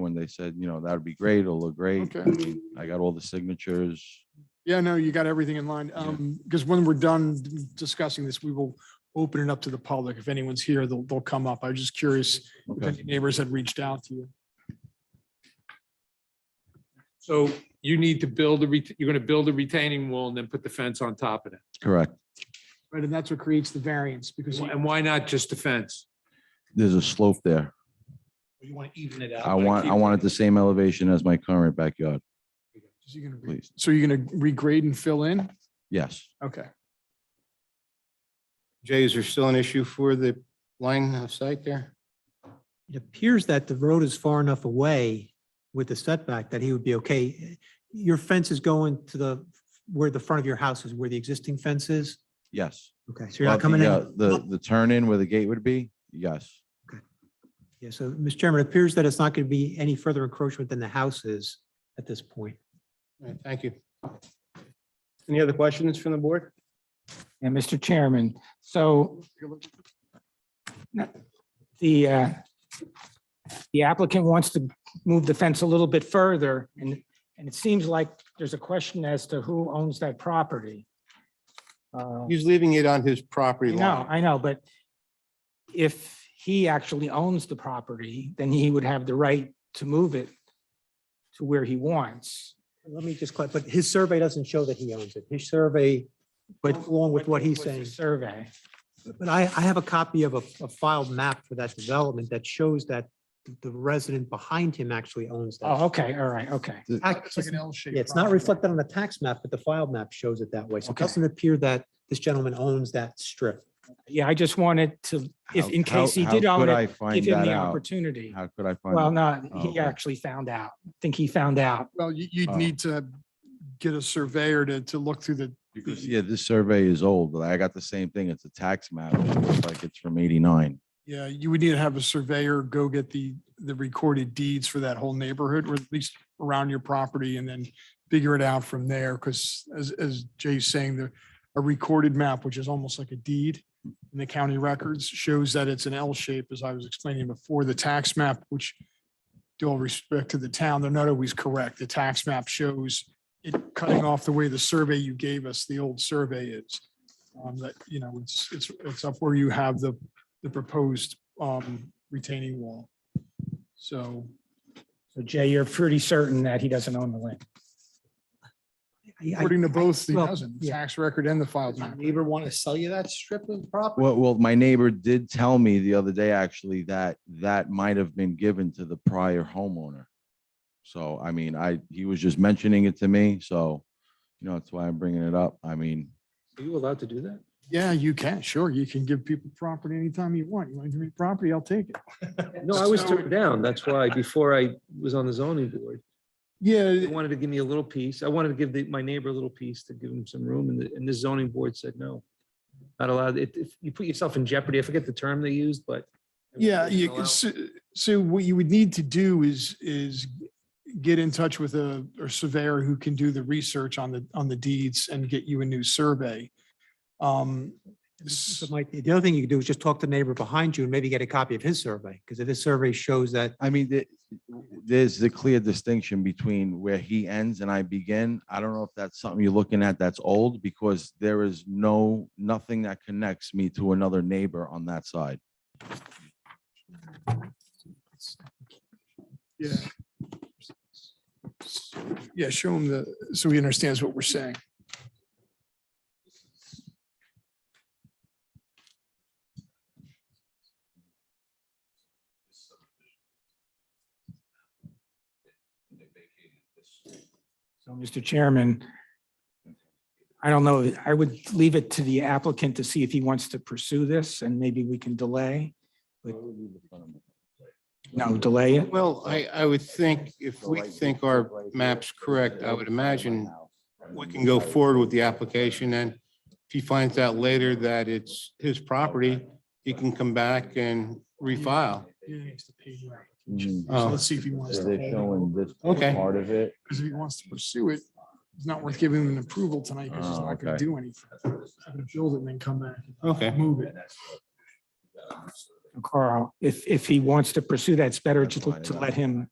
when they said, you know, that would be great, it'll look great. Okay. I mean, I got all the signatures. Yeah, no, you got everything in line. Um, because when we're done discussing this, we will open it up to the public. If anyone's here, they'll, they'll come up. I was just curious if Okay. any neighbors had reached out to you. So you need to build a, ret- you're going to build a retaining wall and then put the fence on top of it. Correct. Right, and that's what creates the variance because you And why not just the fence? There's a slope there. You want to even it out. I want, I want it the same elevation as my current backyard, so you're gonna, re- please. so you're gonna regrade and fill in? Yes. Okay. Jay, is there still an issue for the line of sight there? It appears that the road is far enough away with the setback that he would be okay. Your fence is going to the, where the front of your house is, where the existing fence is? Yes. Okay, so you're not But the, coming uh, in? The, the turn in where the gate would be? Yes. Yeah, so, Mr. Chairman, it appears that it's not going to be any further encroachment than the house is at this point. All right, Thank you. Any other questions from the board? Yeah, Mr. Chairman, so the, uh, the applicant wants to move the fence a little bit further, and, and it seems like there's a question as to who owns that property. Uh, He's leaving it on his property No, line. I know, but if he actually owns the property, then he would have the right to move it to where he wants. Let me just, clar- but his survey doesn't show that he owns it. His survey went along with what he's What's the saying. Survey. But I, I have a copy of a, a filed map for that development that shows that the resident behind him actually owns that. Oh, okay, all right, okay. It's like an L shape. Yeah, it's not reflected on the tax map, but the filed map shows it that way. So it Okay. doesn't appear that this gentleman owns that strip. Yeah, I just wanted to, if, How- in how- case he how did own could it, I give find him that the out? opportunity. How could I Well, find? no, Oh, he okay. actually found out. I think he found out. Well, you, you'd Oh. need to get a surveyor to, to look through the, Because, yeah, this survey is old. I got the same thing. It's a tax map. It looks like it's from eighty-nine. yeah, you would need to have a surveyor go get the, the recorded deeds for that whole neighborhood or at least around your property and then figure it out from there. Cause as, as Jay's saying, the, a recorded map, which is almost like a deed in the county records, shows that it's an L shape, as I was explaining before. The tax map, which due all respect to the town, they're not always correct. The tax map shows it cutting off the way the survey you gave us, the old survey is. Um, that, you know, it's, it's, it's up where you have the, the proposed, um, retaining wall. So, So Jay, you're pretty certain that he doesn't own the land. I- I- according to both, he well, doesn't, the yeah. tax record and the filed map. Neighbor want to sell you that strip of property? Well, well, my neighbor did tell me the other day, actually, that that might have been given to the prior homeowner. So, I mean, I, he was just mentioning it to me, so, you know, that's why I'm bringing it up. I mean, Are you allowed to do that? Yeah, you can, sure. You can give people property anytime you want. You want to give me property, I'll take it. No, I was turned down. That's why before I was on the zoning board, they Yeah, wanted to give me a little piece. I wanted to give the- my neighbor a little piece to give him some room and the, and the zoning board said no. Not allowed. It, if you put yourself in jeopardy, I forget the term they used, but. yeah, you, Allow- can- so, so what you would need to do is, is get in touch with a, a surveyor who can do the research on the, on the deeds and get you a new survey. Um, So Mike, the other thing you could do is just talk to the neighbor behind you and maybe get a copy of his survey, because if his survey shows that, I mean, the- there's the clear distinction between where he ends and I begin. I don't know if that's something you're looking at that's old, because there is no, nothing that connects me to another neighbor on that side. yeah. Yeah, show him the, so he understands what we're saying. So, Mr. Chairman, I don't know, I would leave it to the applicant to see if he wants to pursue this and maybe we can delay. No, delay it. Well, I, I would think if we think our map's correct, I would imagine we can go forward with the application and if he finds out later that it's his property, he can come back and refile. Mhm. So let's see if he wants So to. They're hold it. showing this Okay. part of it. Because if he wants to pursue it, it's not worth giving him an approval tonight because he's Oh, not going okay. to do anything. He's gonna Build it and then come back. Okay. Move it. Carl, if, if he wants to pursue that, it's better That's to, fine, to yeah. let him